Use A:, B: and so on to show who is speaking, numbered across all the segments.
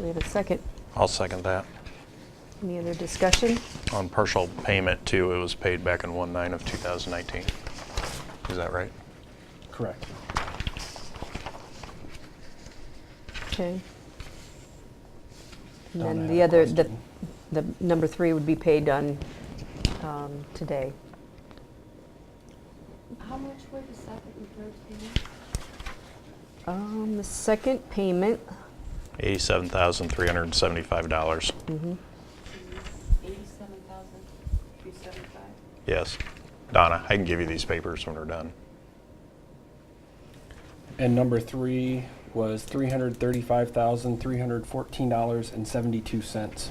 A: We have a second.
B: I'll second that.
A: Any other discussion?
B: On partial payment too, it was paid back in 1/9 of 2019. Is that right?
C: Correct.
A: Okay. And
C: Donna
A: then
C: had
A: the
C: a
A: other, the,
C: question.
A: the number three would be paid on, um, today.
D: How much were the second and third payments?
A: Um, the second payment,
B: $87,375.
A: mhm,
D: Eighty-seven thousand, three seventy-five.
B: Yes. Donna, I can give you these papers when we're done.
C: And number three was three hundred thirty-five thousand, three hundred fourteen dollars and seventy-two cents.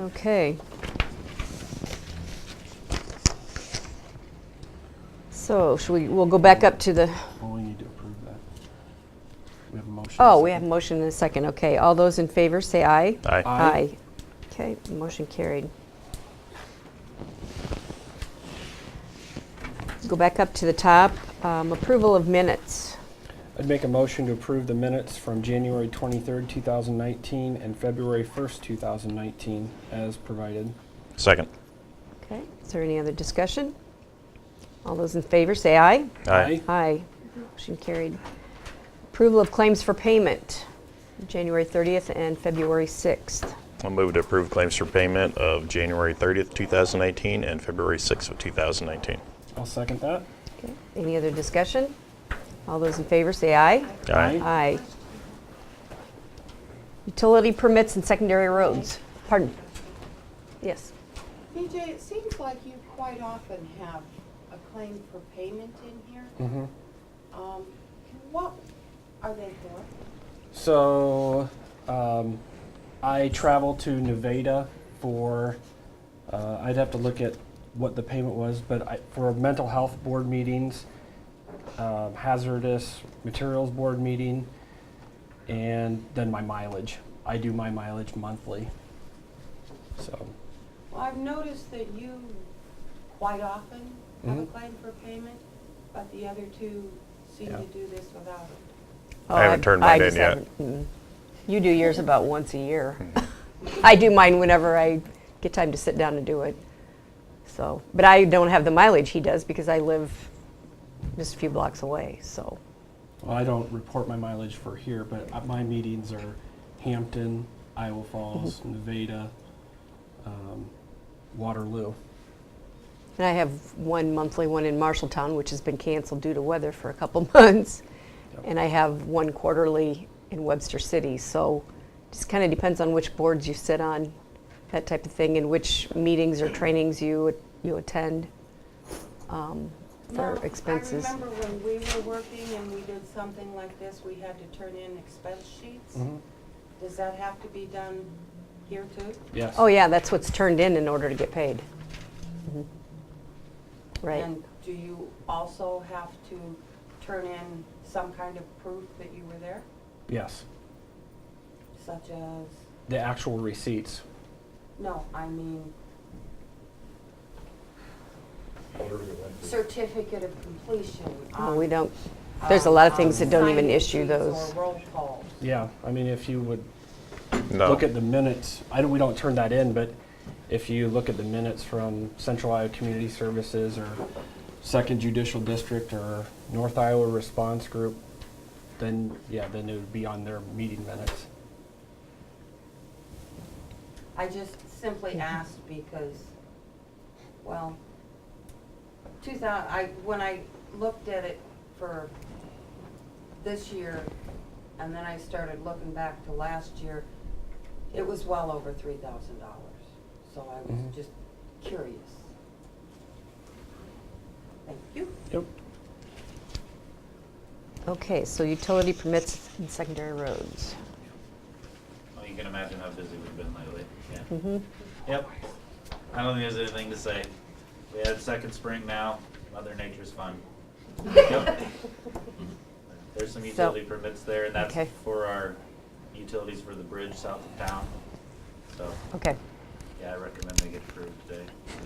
A: okay. So, should we, we'll go back up to the,
C: Well, we need to approve that. We have a motion.
A: oh, we have a motion and a second, okay. All those in favor, say aye.
B: Aye.
C: Aye.
A: Okay, motion carried. Go back up to the top, um, approval of minutes.
C: I'd make a motion to approve the minutes from January twenty-third, two thousand nineteen, and February first, two thousand nineteen, as provided.
B: Second.
A: Okay, is there any other discussion? All those in favor, say aye.
B: Aye.
A: Aye. Motion carried. Approval of claims for payment, January 30th and February 6th.
B: I'll move to approve claims for payment of January 30th, 2019 and February 6th of 2019.
C: I'll second that.
A: Okay, Any other discussion? All those in favor, say aye.
B: Aye.
A: Aye. Utility permits and secondary roads. Pardon? Yes.
E: BJ, it seems like you quite often have a claim for payment in here.
C: Mm-hmm.
E: Um, What are they for?
C: So, um, I travel to Nevada for, uh, I'd have to look at what the payment was, but I, for mental health board meetings, um, hazardous materials board meeting, and then my mileage. I do my mileage monthly. So,
E: Well, I've noticed that you quite often have a
A: Mm-hmm.
C: Mhm.
E: claim for payment, but the other two seem
C: Yeah.
E: to do this without it.
A: Oh,
B: I haven't turned
A: I
B: mine
A: just
B: in yet.
A: haven't- mm. You do yours about once a year. I do mine whenever I get time to sit down and do it. So, but I don't have the mileage he does because I live just a few blocks away, so.
C: well, I don't report my mileage for here, but uh, my meetings are Hampton, Iowa Falls, Nevada, um, Waterloo.
A: And I have one monthly one in Marshalltown, which has been canceled due to weather for a couple months.
C: Yep.
A: And I have one quarterly in Webster City, so just kind of depends on which boards you sit on, that type of thing, and which meetings or trainings you, you attend um, for
E: Now,
A: expenses.
E: I remember when we were working and we did something like this, we had to turn in expense sheets.
A: Mm-hmm.
C: Mhm.
E: Does that have to be done here too?
C: Yes.
A: Oh, yeah, that's what's turned in in order to get paid. Mhm. Right.
E: Mm-hmm. And do you also have to turn in some kind of proof that you were there,
C: Yes.
E: such as,
C: The actual receipts.
E: no, I mean, certificate of completion?
A: Oh, We
E: on-
A: don't, there's a lot of
E: on
A: things that don't even
E: um, signing
A: issue
E: sheets
A: those.
E: Or roll calls.
C: Yeah, I mean, if you would
B: No.
C: look at the minutes, I don't, we don't turn that in, but if you look at the minutes from Central Iowa Community Services or Second Judicial District or North Iowa Response Group, then, yeah, then it would be on their meeting minutes.
E: I just simply asked because, well, two thousand, I, when I looked at it for this year, and then I started looking back to last year, it was well over three thousand dollars. So I was
C: Mhm.
E: just curious. Thank you.
C: Yep.
A: Okay, so utility permits and secondary roads.
F: Well, you can imagine how busy we've been lately. Yeah.
A: Mhm.
F: Yep. I don't think there's anything to say. We had second spring now. Mother Nature's fun. Yep. There's some utility permits there, and that's
A: Okay.
F: for our utilities for the bridge south of town. So,
A: Okay.
F: yeah, I recommend they get approved today.